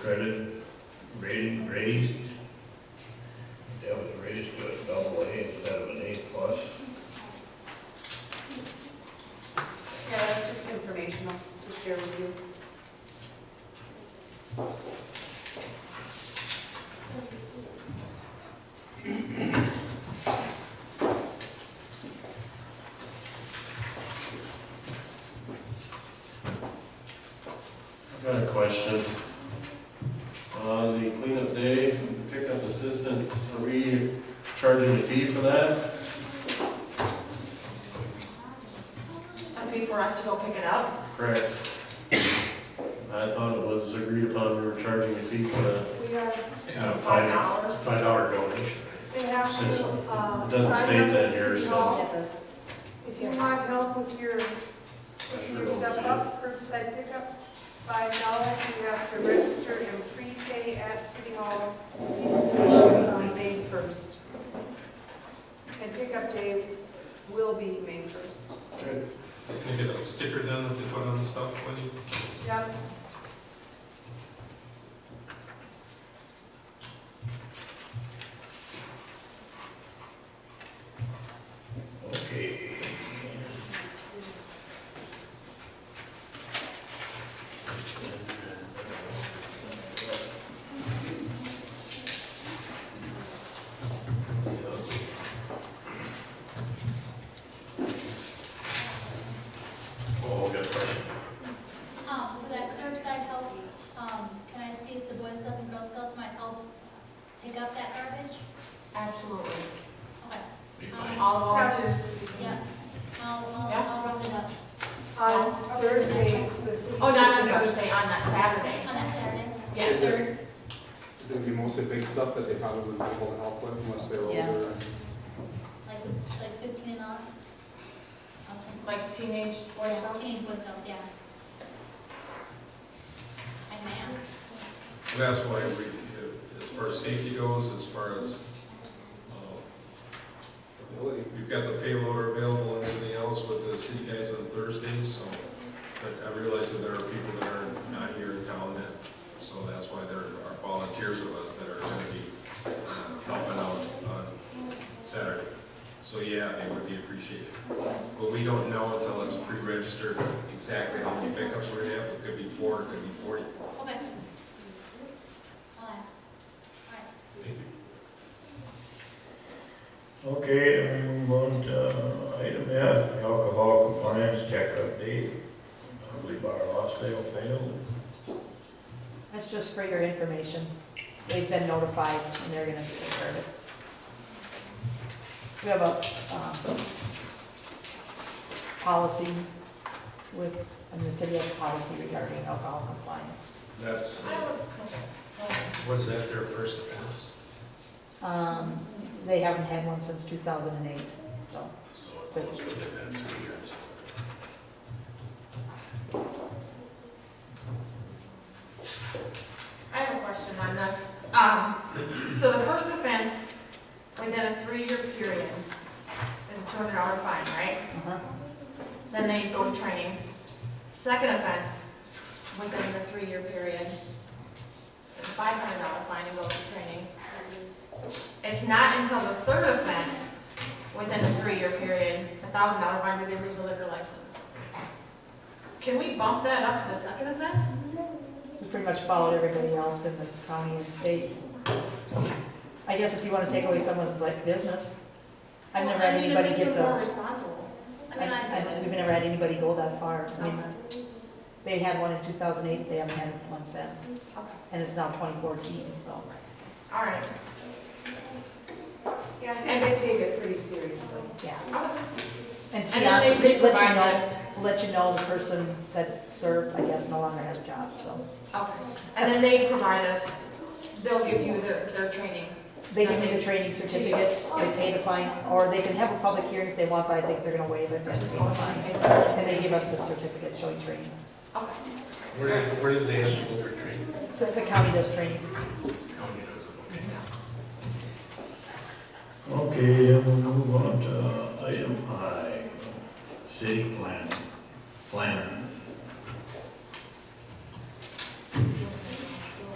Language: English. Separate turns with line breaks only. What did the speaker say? credit rating raised. That was raised to a double A instead of an A plus.
Yeah, that's just informational to share with you.
I've got a question. On the cleanup day, pickup assistance, are we charging a fee for that?
I mean, for us to go pick it up,
Correct. I thought it was agreed upon we were charging a fee for that.
we are
Yeah,
five dollars.
Uh, five dollar donation.
They have
It's-
to, uh.
it doesn't
sign
state
up
that
at
here,
City
so-
Hall. If you want help with your,
I sure
your
don't
stuff
see it.
up, curbside pickup, five dollars, you have to register and prepay at City Hall. Information on May first. And pickup day will be May first.
Good.
Can I get a sticker done that they put on the stuff when you?
Yep.
Okay.
Oh, good question.
Um, for that curbside help, um, can I see if the Boy Scouts and Girl Scouts might help pick up that garbage?
Absolutely.
Okay,
Be
All volunteers.
yeah, I'll, I'll,
Yeah.
I'll round it up
Um, On Thursday, the city.
Oh, not on Thursday, on that Saturday.
on that Saturday.
Yes.
Is it- It's gonna be mostly big stuff that they probably wouldn't be able to help with unless they're
Yeah.
older.
Like, like fifteen and up. Awesome.
Like teenage boys.
Yeah, Teenage Boy Scouts, yeah. I may ask.
That's why we, uh, as far as safety goes, as far as, uh,
Ability.
we've got the payloader available and everything else with the city guys on Thursdays, so. But I realize that there are people that are not here in town that, so that's why there are volunteers of us that are gonna be uh, helping out on Saturday. So yeah, it would be appreciated. But we don't know until it's pre-registered exactly how many pickups we're gonna have. It could be four, it could be forty.
Okay. I'll ask.
Thank you.
Okay, I'm going to item F, alcohol compliance check update. Ugly bar Losdale failed.
That's just for your information. They've been notified and they're gonna take care of it. We have a, um, policy with, and the city has a policy regarding alcohol compliance.
That's, was that their first offense?
Um, they haven't had one since two thousand and eight, so.
So it was within that three years.
I have a question on this. Um, so the first offense within a three-year period is a two hundred dollar fine, right?
uh-huh.
Then they go to training. Second offense within the three-year period is a five hundred dollar fine and goes to training. It's not until the third offense within the three-year period, a thousand dollar fine, do they lose a liquor license. Can we bump that up to the second offense?
We pretty much followed everybody else in the county and state. I guess if you wanna take away someone's like business, I've never had anybody get the.
Well, I mean, it makes them more responsible. I mean, I
I- I-
get
We've
it.
never had anybody go that far. I mean,
Okay.
They had one in 2008, they haven't had one since,
Okay.
and it's now 2014, so.
All right.
Yeah, and they take it pretty seriously.
Yeah. And to
And
be
then they
honest, let
did
you
provide
know,
that,
let you know the person that served, I guess, no longer has a job, so.
okay, and then they provide us, they'll give you their, their training.
They can do the training certificates, they pay the fine, or they can have a public hearing if they want, but I think they're gonna waive it and pay the fine.
Okay,
And they give us the certificate showing training.
Where, where did they have to go for training?
So The county does training.
County does it.
Okay, then we'll move on to item I, city plan, planner.